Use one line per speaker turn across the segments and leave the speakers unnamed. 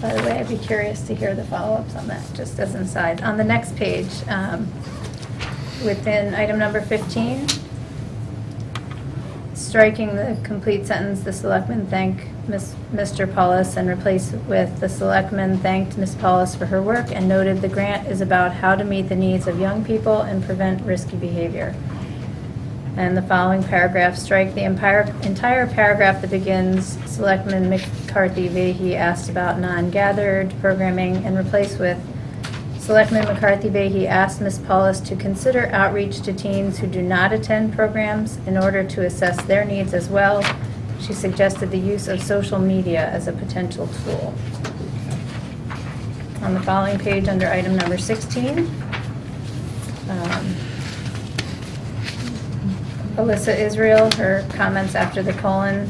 By the way, I'd be curious to hear the follow-ups on that, just as an aside. On the next page, um, within item number 15, striking the complete sentence, "The selectmen thank Ms- Mr. Paulus," and replace with, "The selectmen thanked Ms. Paulus for her work and noted the grant is about how to meet the needs of young people and prevent risky behavior." And the following paragraph, strike the entire, entire paragraph that begins, Selectman McCarthy Vahy asked about non-gathered programming, and replace with, Selectman McCarthy Vahy asked Ms. Paulus to consider outreach to teens who do not attend programs in order to assess their needs as well. She suggested the use of social media as a potential tool. On the following page, under item number 16, um, Alyssa Israel, her comments after the colon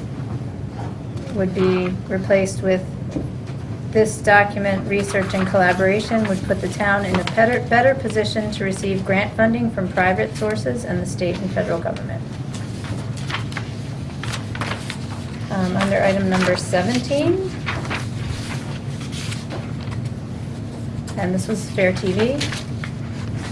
would be replaced with, "This document, research and collaboration would put the town in a better, better position to receive grant funding from private sources and the state and federal government." Um, Under item number 17, and this was Fair TV,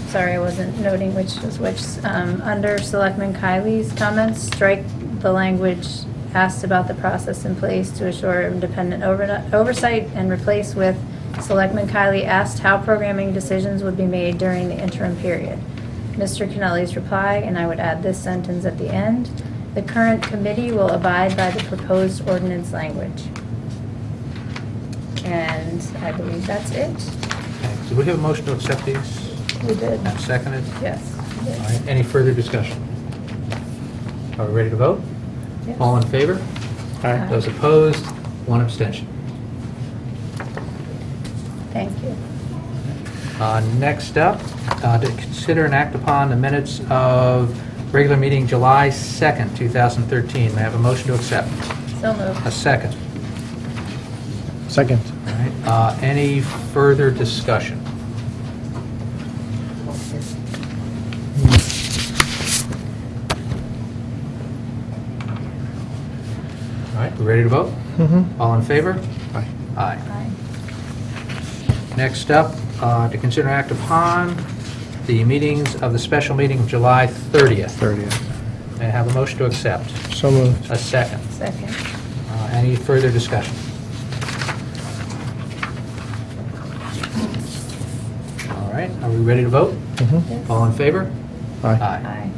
Sorry, I wasn't noting which was which. Um, Under Selectman Kylie's comments, strike the language asked about the process in place to assure independent overni- oversight and replace with Selectman Kylie asked how programming decisions would be made during the interim period. Mr. Kennelly's reply, and I would add this sentence at the end, "The current committee will abide by the proposed ordinance language." And I believe that's it.
Do we have a motion to accept these?
We did.
And seconded?
Yes.
All right, any further discussion? Are we ready to vote?
Yes. Uh,
All in favor?
Aye.
Those opposed? One abstention.
Thank you.
Uh, Next up, uh, to consider and act upon the minutes of regular meeting July 2nd, 2013. May I have a motion to accept?
So
A
moved.
second.
Second.
All right, uh, Any further discussion? All right, we ready to vote?
Mm-hmm.
All in favor?
Aye.
Aye.
Aye.
Next up, uh, to consider act upon the meetings of the special meeting of July 30th.
30th.
May I have a motion to accept?
So moved.
A second.
Second.
Uh, Any further discussion? All right, are we ready to vote?
Mm-hmm.
All in favor?
Aye.
Aye.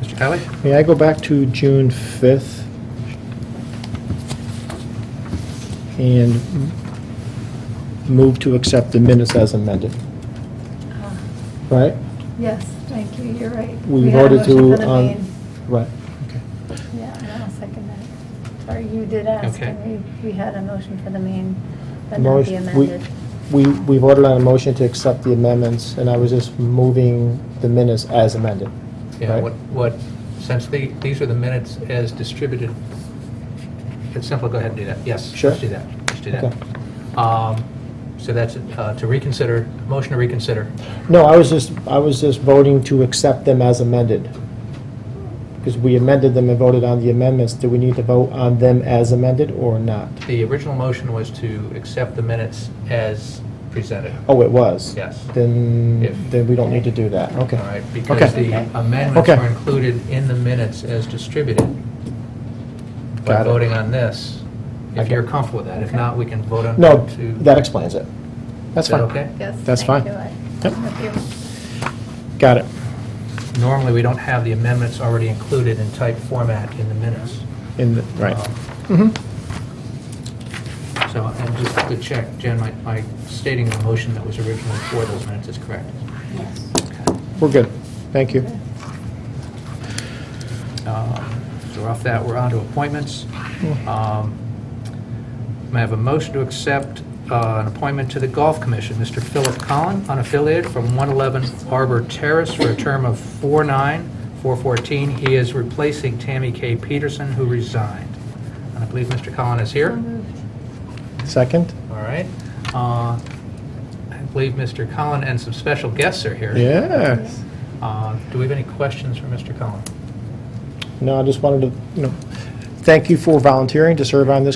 Mr. Kelly?
May I go back to June 5th? And move to accept the minutes as amended,
Ah,
right?
Yes, thank you, you're right.
We
had a
voted
motion
to,
for the
um,
main.
Right, okay.
Yeah, and I'll second that. Sorry, you did ask,
Okay.
and we, we had a motion for the main, but not the
Motion- we-
amended.
We, we voted on a motion to accept the amendments, and I was just moving the minutes as amended.
Yeah,
right?
what, what, since the- these are the minutes as distributed, it's simple, go ahead and do that. Yes,
Sure.
let's do that. Let's do
Okay.
that. Um, So that's uh, to reconsider, motion to reconsider.
No, I was just, I was just voting to accept them as amended. Because we amended them and voted on the amendments. Do we need to vote on them as amended or not?
The original motion was to accept the minutes as presented.
Oh, it was?
Yes.
Then,
If-
then we don't need to do that, okay.
All right, because
Okay.
the amendments
Okay.
were included in the minutes as distributed. By
Got it.
voting on this, if
Okay.
you're comfortable with that. If
Okay.
not, we can vote on.
No,
to-
that explains it. That's
Is that
fine.
okay?
Yes,
That's
thank
fine.
you, I-
Yep.
I'm with you.
Got it.
Normally, we don't have the amendments already included in type format in the minutes.
In, the- right.
Um,
Mhm.
So, and just to check, Jen, my- my stating the motion that was originally for those minutes is correct.
We're good. Thank you.
Um, So we're off that, we're on to appointments. Um, May I have a motion to accept uh, an appointment to the Golf Commission? Mr. Philip Collin, unaffiliated, from 111 Arbor Terrace for a term of 4/9/414. He is replacing Tammy K. Peterson, who resigned. And I believe Mr. Collin is here.
So moved.
Second?
All right. Uh, I believe Mr. Collin and some special guests are here.
Yes.
Uh, Do we have any questions for Mr. Collin?
No, I just wanted to, you know, thank you for volunteering to serve on this